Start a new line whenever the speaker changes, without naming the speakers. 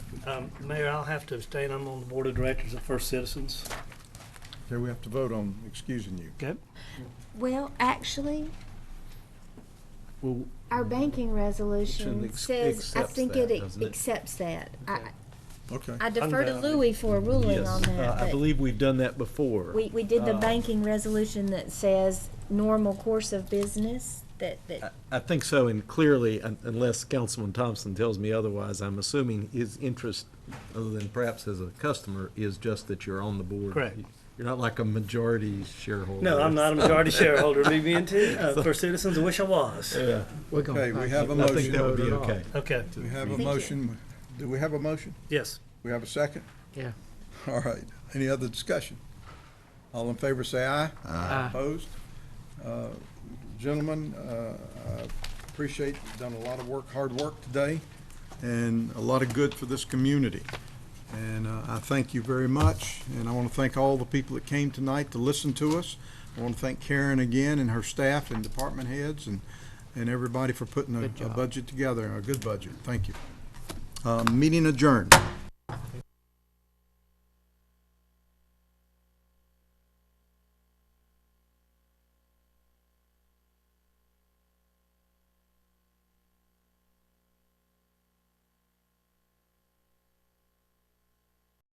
Um, Mayor, I'll have to abstain. I'm on the board of directors of First Citizens.
Okay, we have to vote on excusing you.
Okay.
Well, actually,
Well,
our banking resolution
ex-
says, I
accepts
think it
that,
ex-
doesn't it?
accepts that. I
Okay.
I defer to
Unbound.
Louis for a ruling
yes,
on
uh, I
that, but
believe we've done that before.
we, we did the
uh,
banking resolution that says normal course of business, that,
I-
that,
I think so, and clearly, un- unless Councilman Thompson tells me otherwise, I'm assuming his interest, other than perhaps as a customer, is just that you're on the board.
Correct.
You're not like a majority shareholder.
No, I'm not a majority shareholder, me being too, uh, First Citizens, I wish I was.
Yeah,
Okay, we have a
I think that
motion.
would be okay.
Okay,
We have a
Thank you.
motion. Do we have a motion?
yes.
We have a second?
Yeah.
All right. Any other discussion? All in favor, say aye.
Aye.
Opposed? Uh, Gentlemen, uh, I appreciate, you've done a lot of work, hard work today, and a lot of good for this community. And uh, I thank you very much, and I want to thank all the people that came tonight to listen to us. I want to thank Karen again and her staff and department heads and, and everybody for putting a-
Good
a
job.
budget together, a good budget. Thank you. Uh, Meeting adjourned.